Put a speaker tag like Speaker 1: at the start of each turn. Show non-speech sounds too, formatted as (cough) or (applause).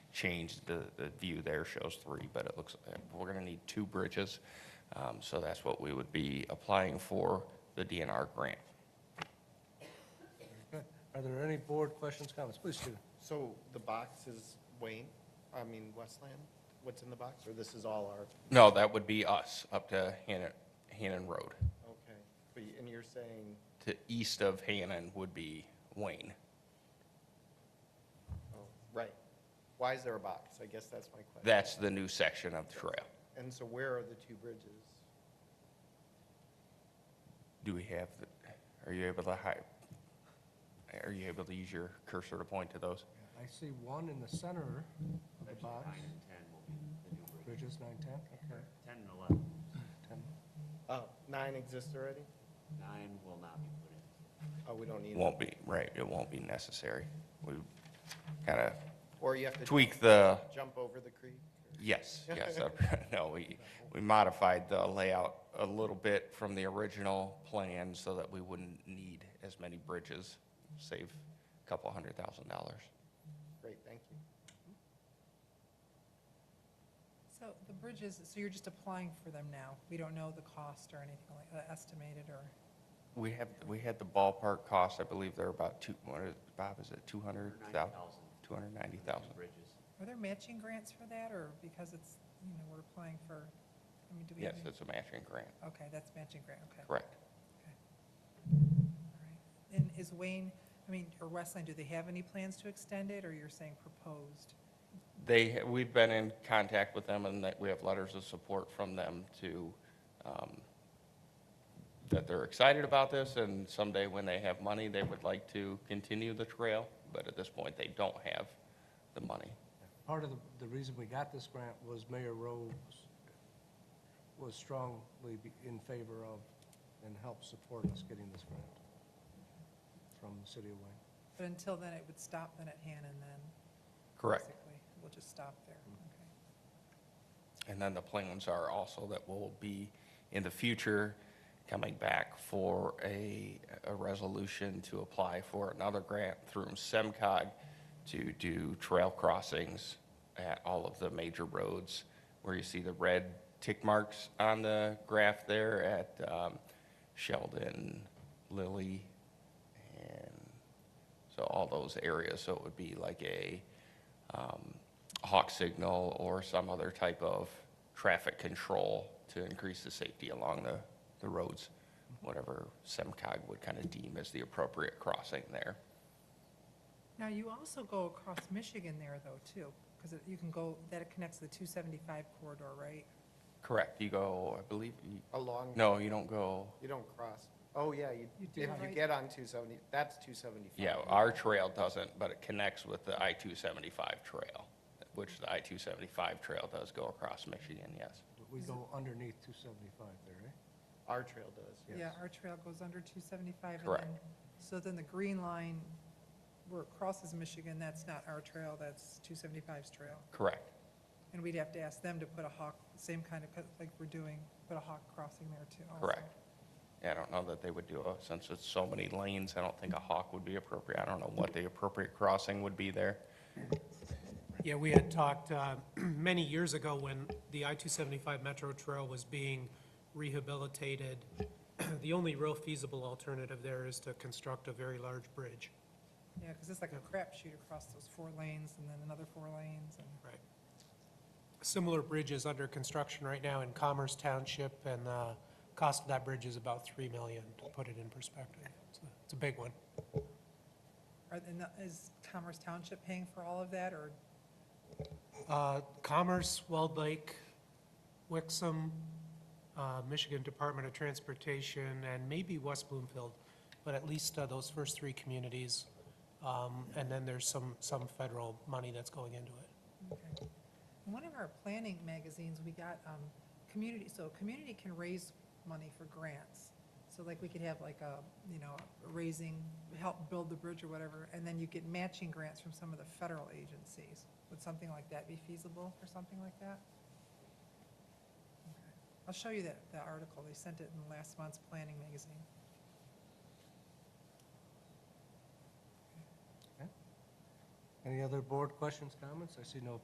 Speaker 1: changed. The, the view there shows three, but it looks, we're going to need two bridges. Um, So that's what we would be applying for, the DNR grant.
Speaker 2: Are there any board questions, comments? Please, Stephen.
Speaker 3: So the box is Wayne, I mean Westland, what's in the box, or this is all our,
Speaker 1: No, that would be us, up to Hannon, Hannon Road.
Speaker 3: okay. But, you- and you're saying,
Speaker 1: To east of Hannon would be Wayne.
Speaker 3: oh, right, why is there a box? I guess that's my question.
Speaker 1: That's the new section of the trail.
Speaker 3: And so where are the two bridges?
Speaker 1: Do we have, the- are you able to hi, are you able to use your cursor to point to those?
Speaker 2: I see one in the center of the box.
Speaker 4: Nine and 10 will be the new bridge.
Speaker 2: Bridges, nine, ten, okay.
Speaker 4: 10 and 11,
Speaker 2: 10.
Speaker 3: Oh, nine exist already?
Speaker 4: nine will not be put in.
Speaker 3: Oh, we don't need them.
Speaker 1: Won't be, right, it won't be necessary. We kind of
Speaker 3: Or you have to
Speaker 1: tweak the,
Speaker 3: jump over the creek?
Speaker 1: yes, yes, (laughs) no, we, we modified the layout a little bit from the original plan so that we wouldn't need as many bridges, save a couple hundred thousand dollars.
Speaker 3: Great, thank you.
Speaker 5: So the bridges, so you're just applying for them now? We don't know the cost or anything like, uh, estimated or,
Speaker 1: We have, we had the ballpark cost, I believe they're about two, what is, Bob, is it two hundred thousand?
Speaker 4: 190,000.
Speaker 1: Two hundred ninety
Speaker 4: Two
Speaker 1: thousand.
Speaker 4: Bridges.
Speaker 5: are there matching grants for that or because it's, you know, we're applying for, I mean, do we? have
Speaker 1: Yes,
Speaker 5: any-
Speaker 1: it's a matching grant,
Speaker 5: Okay, that's matching grant, okay.
Speaker 1: correct.
Speaker 5: All right. And is Wayne, I mean, or Westland, do they have any plans to extend it or you're saying proposed?
Speaker 1: They, we've been in contact with them and that we have letters of support from them to, um, that they're excited about this and someday when they have money, they would like to continue the trail, but at this point, they don't have the money.
Speaker 2: Part of the, the reason we got this grant was Mayor Rose was strongly be- in favor of and helped support us getting this grant from the city of Wayne.
Speaker 5: But until then, it would stop then at Hannon then? basically. We'll just stop there,
Speaker 1: Mm-hmm.
Speaker 5: okay.
Speaker 1: And then the plans are also that we'll be, in the future, coming back for a, a resolution to apply for another grant through SEMCOG to do trail crossings at all of the major roads, where you see the red tick marks on the graph there at um, Sheldon, Lilly, and so all those areas, so it would be like a um, hawk signal or some other type of traffic control to increase the safety along the, the roads, whatever SEMCOG would kind of deem as the appropriate crossing there.
Speaker 5: Now, you also go across Michigan there, though, too, because you can go, that connects to the 275 corridor, right?
Speaker 1: Correct, you go, I believe, you-
Speaker 3: Along,
Speaker 1: no, you don't go,
Speaker 3: you don't cross, oh, yeah, you,
Speaker 5: You do,
Speaker 3: if you
Speaker 5: right?
Speaker 3: get on 270, that's 275.
Speaker 1: yeah, uh, our trail doesn't, but it connects with the I-275 trail, which the I-275 trail does go across Michigan, yes.
Speaker 2: But We go underneath 275 there, eh? right?
Speaker 3: Our trail does.
Speaker 5: Yeah, our trail goes under 275. and
Speaker 1: Correct.
Speaker 5: then- So then the green line where it crosses Michigan, that's not our trail, that's 275's trail.
Speaker 1: Correct,
Speaker 5: And we'd have to ask them to put a hawk, same kind of, co- like we're doing, put a hawk crossing there, too. also.
Speaker 1: correct. Yeah, I don't know that they would do, a- since it's so many lanes, I don't think a hawk would be appropriate. I don't know what the appropriate crossing would be there.
Speaker 6: Yeah, we had talked uh, (clears throat) many years ago when the I-275 Metro Trail was being rehabilitated. (clears throat) The only real feasible alternative there is to construct a very large bridge.
Speaker 5: Yeah, because it's like a crapshoot across those four lanes and then another four lanes and.
Speaker 6: Right. Similar bridge is under construction right now in Commerce Township, and the cost of that bridge is about 3 million, to put it in perspective. It's a- It's a big one.
Speaker 5: Are, and the- is Commerce Township paying for all of that, or
Speaker 6: Uh, Commerce, Weld Lake, Wixom, uh, Michigan Department of Transportation, and maybe West Bloomfield, but at least uh, those first three communities. Um, And then there's some, some federal money that's going into it.
Speaker 5: Okay. In One of our planning magazines, we got, um, community, so community can raise money for grants. So like, we could have like a, you know, raising, help build the bridge or whatever, and then you get matching grants from some of the federal agencies. Would something like that be feasible, or something like that? Okay. I'll show you that, that article, they sent it in last month's planning magazine.
Speaker 2: Any other board questions, comments? I see no